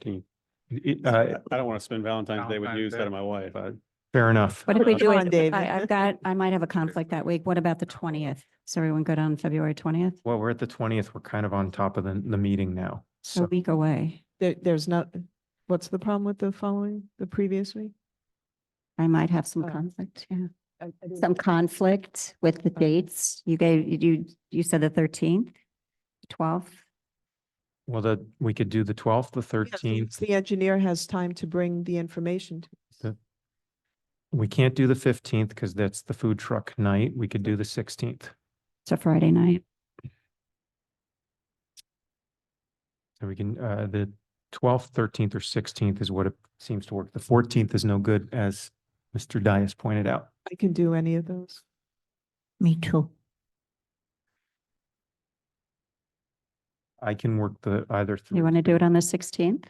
Can you- it- I, uh, I don't want to spend Valentine's Day with you Valentine's instead of Day. my wife. I, Fair enough. What if we Come do on, it? David. I, I've got, I might have a conflict that week. What about the twentieth? Is everyone good on February twentieth? Well, we're at the twentieth. We're kind of on top of the, the meeting now. A So week away. There, there's not, what's the problem with the following, the previous week? I might have some Oh. conflict, yeah. I- I didn't- Some conflict with the dates. You gave, you, you said the thirteenth, twelfth. well, the, we could do the twelfth, the Yeah, so thirteenth. The engineer has time to bring the information. to We can't do the fifteenth because that's the food truck night. We could do the sixteenth. It's a Friday night. So we can, uh, the twelfth, thirteenth or sixteenth is what it seems to work. The fourteenth is no good, as Mr. Dias pointed out. I can do any of those. Me too. I can work the either. You want to do it on the sixteenth?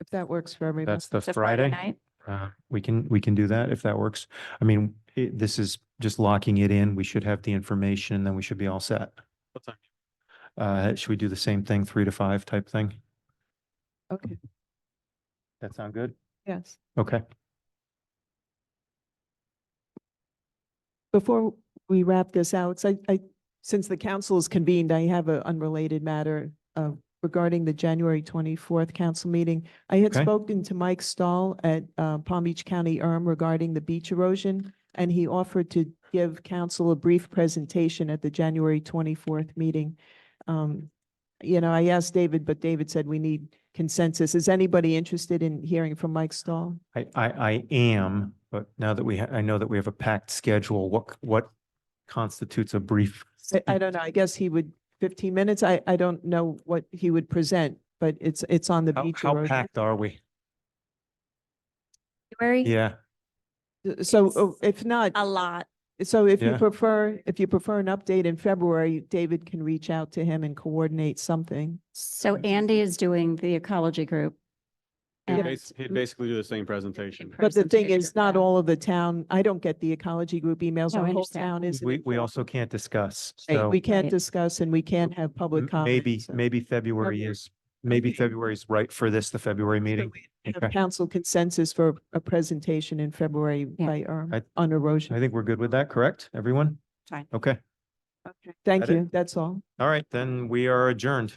If that works for everybody, That's the Friday. night. Uh, we can, we can do that if that works. I mean, it, this is just locking it in. We should have the information, then we should be all set. what time? Uh, should we do the same thing, three to five type thing? okay, That sound good? yes. Okay. Before we wrap this out, so I, I, since the council is convened, I have an unrelated matter uh, regarding the January twenty-fourth council meeting. I had Okay. spoken to Mike Stahl at uh, Palm Beach County ERM regarding the beach erosion, and he offered to give council a brief presentation at the January twenty-fourth meeting. Um, You know, I asked David, but David said we need consensus. Is anybody interested in hearing from Mike Stahl? I, I, I am, but now that we, ha- I know that we have a packed schedule, what, c- what constitutes a brief? I- Hmm. I don't know, I guess he would, fifteen minutes, I, I don't know what he would present, but it's, it's on the How, beach. how erosion. packed are we? Very Yeah, So It's oh, if not, a lot. so if you Yeah. prefer, if you prefer an update in February, David can reach out to him and coordinate something. So Andy is doing the ecology group. He'd and- bas- he'd basically do the same presentation. But the thing Presentation, is, not yeah. all of the town, I don't get the ecology group emails, No, I our whole understand. town is. we, we also can't discuss, so. We can't Right. discuss and we can't have public m- comment. Maybe, so- maybe February February. is, maybe Okay. February's right for this, the February so meeting. we have Okay. Council consensus for a presentation in February Yeah. by, ERM I- on erosion. I think we're good with that, correct, everyone? Fine. Okay, Thank Got it. you, that's all. all right, then we are adjourned.